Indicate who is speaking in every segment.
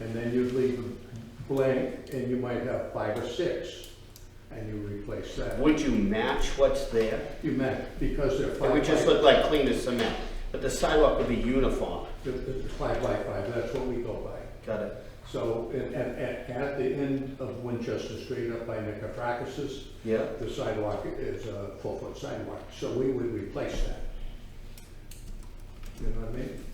Speaker 1: and then you leave a blank, and you might have five or six, and you replace that.
Speaker 2: Would you match what's there?
Speaker 1: You meant, because they're
Speaker 2: It
Speaker 1: five by,
Speaker 2: would just look like clean as cement, but the sidewalk would be uniform.
Speaker 1: they're- they're five by five, that's what we go by.
Speaker 2: Got it.
Speaker 1: So, and, and, and at the end of Winchester Street up by Nicofracus's,
Speaker 2: Yeah.
Speaker 1: the sidewalk is a four-foot sidewalk, so we would replace that. You know what I mean?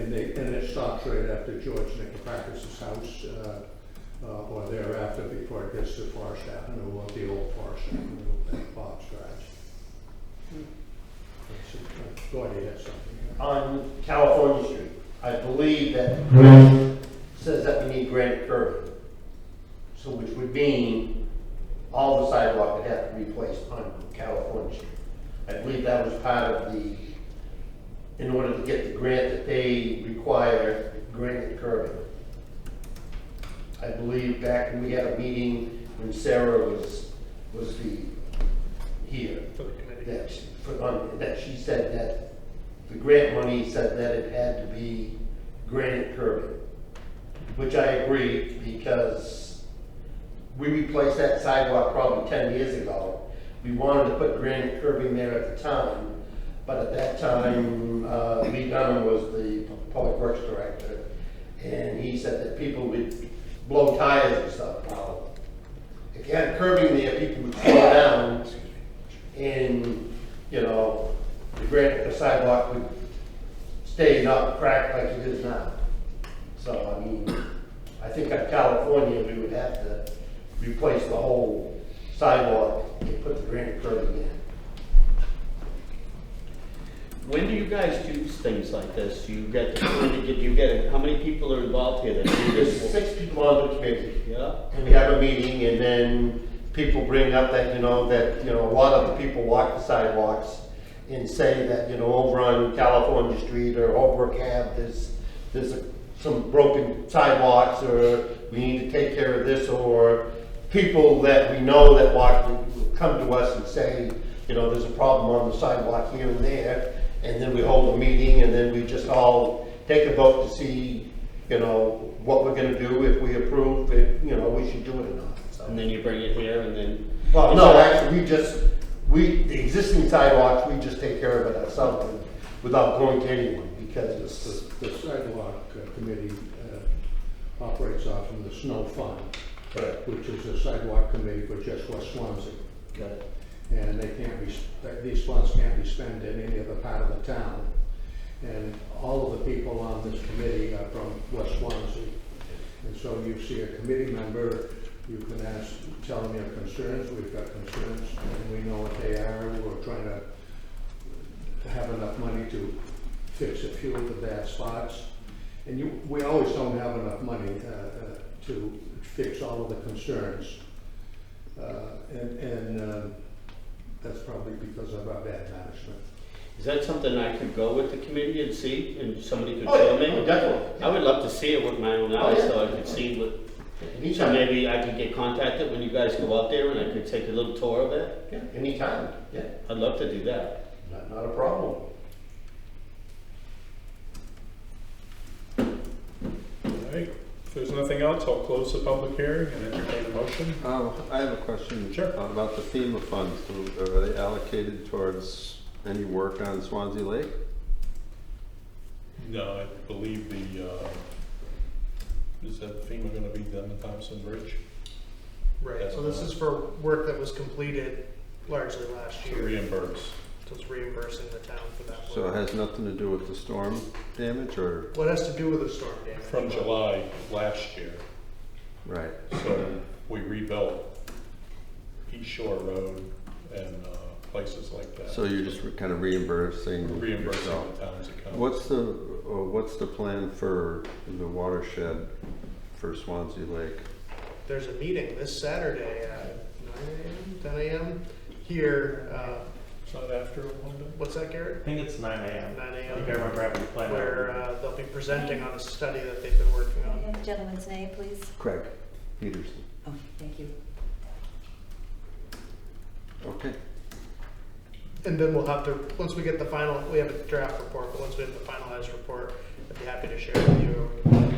Speaker 1: And they, and it stops right after George Nicofracus's house, uh, uh, or thereafter before it gets to Forest Avenue, or the old Forest Avenue, and Bob's Garage. uh, That's it. Gordy has something here.
Speaker 3: on California Street. I believe that says that we need granite curving. So which would mean all the sidewalk would have to be replaced on California Street. I believe that was part of the, in order to get the grant that they require, granite curving. I believe back when we had a meeting when Sarah was, was the, here.
Speaker 4: for the committee.
Speaker 3: that, she- for- on- that she said that the grant money said that it had to be granite curbing, which I agree, because we replaced that sidewalk probably ten years ago. We wanted to put granite curbing there at the time, but at that time, uh, Lee Dunham was the public works director, and he said that people would blow tires and stuff. Well, If you had curbing there, people would slow down, and, you know, the granite, the sidewalk would stay not cracked like it is now. So, I mean, I think in California, we would have to replace the whole sidewalk and put the granite curb in.
Speaker 2: When do you guys do things like this? You get, do you get, how many people are involved here that do
Speaker 3: There's
Speaker 2: this?
Speaker 3: six people on the committee,
Speaker 2: Yeah?
Speaker 3: and we have a meeting, and then people bring up that, you know, that, you know, a lot of the people walk the sidewalks and say that, you know, over on California Street or Holbrook Ave, there's, there's a- some broken sidewalks, or we need to take care of this, or people that we know that walk, come to us and say, you know, there's a problem on the sidewalk here and there, and then we hold a meeting, and then we just all take a vote to see, you know, what we're gonna do, if we approve, if, you know, we should do it or not, so.
Speaker 2: And then you bring it here and then.
Speaker 3: Well, no, actually, we just, we, the existing sidewalks, we just take care of it ourselves without going to anyone because it's,
Speaker 1: The the sidewalk uh, committee uh, operates off of the snow fund, which is a sidewalk committee for just West Swansea.
Speaker 2: Got it.
Speaker 1: And they can't be, sp- these funds can't be spent in any other part of the town. And all of the people on this committee are from West Swansea. And so you see a committee member, you can ask, tell them your concerns, we've got concerns, and we know what they are, we're trying to have enough money to fix a few of the bad spots. And you, we always don't have enough money uh, uh, to fix all of the concerns. Uh, And, and uh, that's probably because of our bad management.
Speaker 2: Is that something I could go with the committee and see and somebody could
Speaker 3: Oh,
Speaker 2: show
Speaker 3: yeah,
Speaker 2: me?
Speaker 3: definitely.
Speaker 2: I would love to see it with my own eyes
Speaker 3: yeah.
Speaker 2: so I could see what, so
Speaker 3: Anytime,
Speaker 2: maybe I could get contacted when you guys go out there and I could take a little tour of it.
Speaker 3: yeah, anytime, yeah,
Speaker 2: I'd love to do that.
Speaker 3: not, not a problem.
Speaker 4: All right, if there's nothing else, I'll close the public hearing and entertain a motion.
Speaker 5: Oh, I have a question.
Speaker 4: Sure.
Speaker 5: About the FEMA funds, Do- are they allocated towards any work on Swansea Lake?
Speaker 4: No, I believe the, uh, is that FEMA gonna be done at Thompson Bridge?
Speaker 6: Right, so this is for work that was completed largely last
Speaker 4: To
Speaker 6: year,
Speaker 4: reimburse.
Speaker 6: so it's reimbursing the town for that
Speaker 5: So it
Speaker 6: work.
Speaker 5: has nothing to do with the storm damage or,
Speaker 6: What has to do with the storm damage?
Speaker 4: From July last year,
Speaker 5: right,
Speaker 4: so we rebuilt East Shore Road and, uh, places like that.
Speaker 5: so you're just kind of reimbursing yourself?
Speaker 4: Reimbursing the town's account.
Speaker 5: What's the, uh, what's the plan for the watershed for Swansea Lake?
Speaker 6: There's a meeting this Saturday at nine AM, ten AM, here, uh,
Speaker 4: It's not after Wanda?
Speaker 6: what's that, Garrett?
Speaker 7: I think it's nine AM.
Speaker 6: Nine
Speaker 7: I think I
Speaker 6: AM,
Speaker 7: remember having to plan
Speaker 6: where,
Speaker 7: out.
Speaker 6: uh, they'll be presenting on a study that they've been working on.
Speaker 8: The Gentleman's name, please.
Speaker 5: Craig Peterson.
Speaker 8: Oh, thank you.
Speaker 5: Okay,
Speaker 6: And then we'll have to, once we get the final, we have a draft report, but once we have the finalized report, I'd be happy to share with you